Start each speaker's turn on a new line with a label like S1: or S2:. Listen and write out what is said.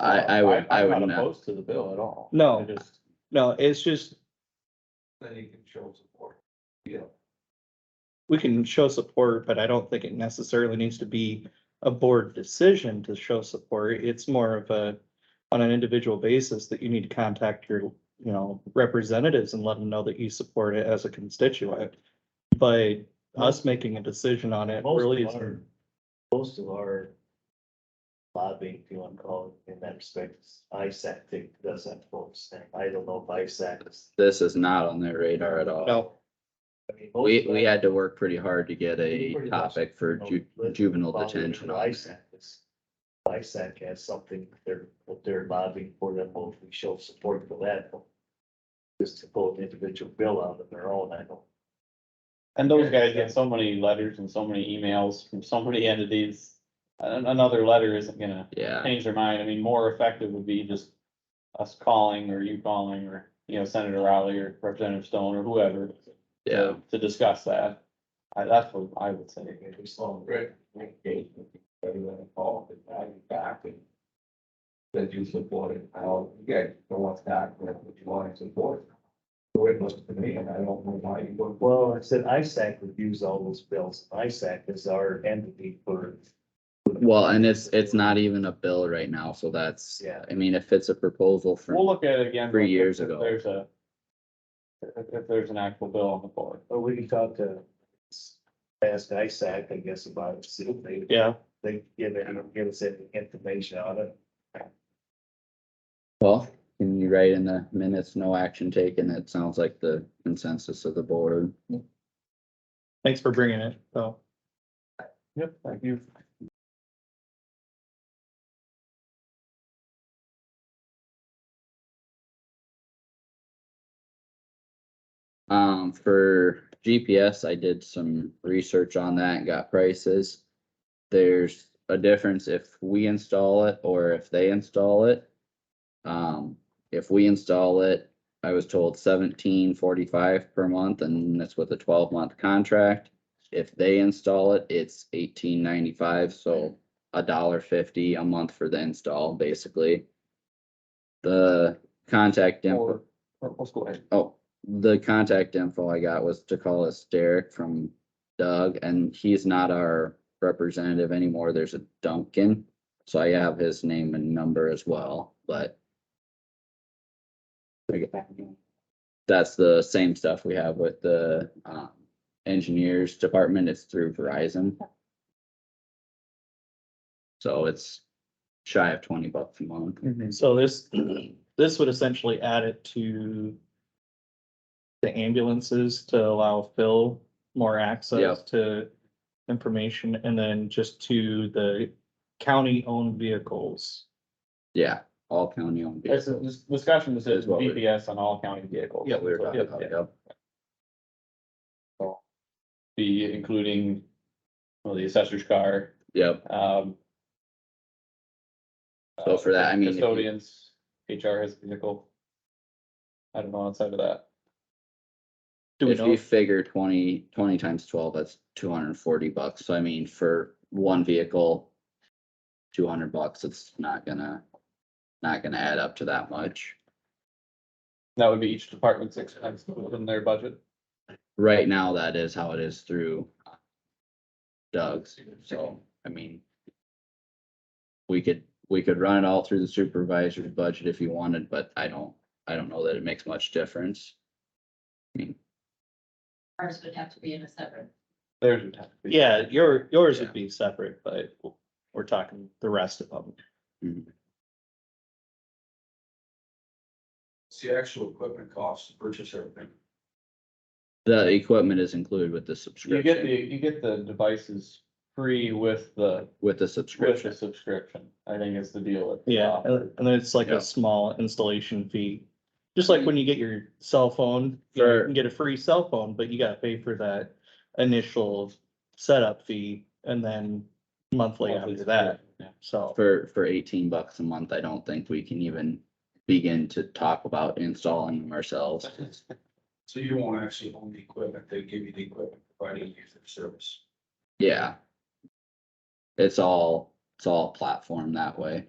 S1: I, I would, I
S2: I'm
S1: would
S2: not
S1: not.
S2: opposed to the bill at all.
S3: No.
S2: I just-
S3: No, it's just,
S4: Then you can show support. Yeah.
S3: we can show support, but I don't think it necessarily needs to be a board decision to show support. It's more of a, on an individual basis that you need to contact your, you know, representatives and let them know that you support it as a constituent. But us making a decision on it
S5: Most
S3: really
S5: of
S3: isn't.
S5: our- Most of our lobbying, if you want to call it in that respect, is ISAC that does that folks, and I don't know if ISAC is.
S1: This is not on their radar at all.
S3: No,
S5: I mean, most
S1: We,
S5: of
S1: we
S5: our-
S1: had to work pretty hard to get a
S5: Pretty much,
S1: topic for
S5: you know,
S1: ju-
S5: let-
S1: juvenile
S5: follow
S1: detention.
S5: the
S1: on.
S5: ISAC is- ISAC has something, they're, what they're lobbying for them, well, if we show support for that. but Just to pull an individual bill out of their own, I don't.
S2: And those guys get so many letters and so many emails from so many entities. An- Another letter isn't gonna
S1: Yeah,
S2: change their mind. I mean, more effective would be just us calling or you calling or, you know, Senator Rowley or Representative Stone or whoever
S1: yeah.
S2: to discuss that. I, that's what I would say.
S5: think we saw.
S4: Right. Everyone involved, and now you back and. That you support it, how, yeah, no one's not, but you want to support. The way it looks to me, and I don't know why you would.
S5: Well, I said ISAC reviews all those bills. ISAC is our entity for.
S1: Well, and it's, it's not even a bill right now, so that's,
S5: Yeah.
S1: I mean, if it's a proposal
S2: We'll
S1: from,
S2: look at it again.
S1: Three
S2: if-
S1: years
S2: if
S1: ago.
S2: There's a, if, if there's an actual bill on the board.
S5: But we can talk to. Ask ISAC, I guess, about it, see if they,
S3: yeah,
S5: they give it, give us any information on it.
S1: well, can you write in the minutes, no action taken? It sounds like the consensus of the board.
S3: thanks for bringing it, so.
S2: Yep, thank you.
S1: Um, for GPS, I did some research on that and got prices. There's a difference if we install it or if they install it. Um, if we install it, I was told seventeen forty-five per month and that's with a twelve-month contract. If they install it, it's eighteen ninety-five, so a dollar fifty a month for the install, basically. The contact info.
S2: Or, or let's go ahead.
S1: Oh, the contact info I got was to call us Derek from Doug, and he's not our representative anymore. There's a Duncan. So I have his name and number as well, but that's the same stuff we have with the um engineers department. It's through Verizon. So it's shy of twenty bucks a month.
S3: So this, this would essentially add it to the ambulances to allow Phil more access
S1: Yep.
S3: to information and then just to the county-owned vehicles.
S1: Yeah, all county owned.
S2: It's a dis- discussion
S1: Is
S2: decision,
S1: what we-
S2: BPS on all county vehicles.
S1: Yeah, we were talking
S2: Yep,
S1: about,
S2: yep.
S1: yep.
S2: Be including, well, the assessor's car,
S1: Yep,
S2: um.
S1: So for that, I mean, if you-
S2: Custodians, HR has vehicle. I don't know outside of that.
S3: Do we
S1: if
S3: know,
S1: you figure 20 20 times twelve, that's two hundred and forty bucks, so I mean, for one vehicle. Two hundred bucks, it's not gonna, not gonna add up to that much.
S2: That would be each department's expense within their budget.
S1: Right now, that is how it is through. Doug's, so, I mean. We could, we could run it all through the supervisor's budget if you wanted, but I don't, I don't know that it makes much difference.
S6: Ours would have to be in a separate,
S2: Theirs would have to be.
S3: yeah, your, yours would be separate, but we're talking the rest of them.
S4: It's the actual equipment costs, to purchase everything.
S1: The equipment is included with the
S2: You get the,
S1: subscription,
S2: you get the devices free with the,
S1: with the
S2: with
S1: subscription,
S2: the subscription, I think is the deal with.
S3: Yeah,
S2: uh,
S3: and and then it's like
S1: Yeah.
S3: a small installation fee. Just like when you get your cell phone, you know, you
S1: Sure.
S3: can get a free cell phone, but you gotta pay for that initial setup fee and then monthly after that,
S2: subscription, yeah.
S3: so.
S1: for, for eighteen bucks a month, I don't think we can even begin to talk about installing them ourselves.
S4: So you won't actually own the equipment, they give you the equipment, providing you for service.
S1: Yeah. It's all, it's all platform that way.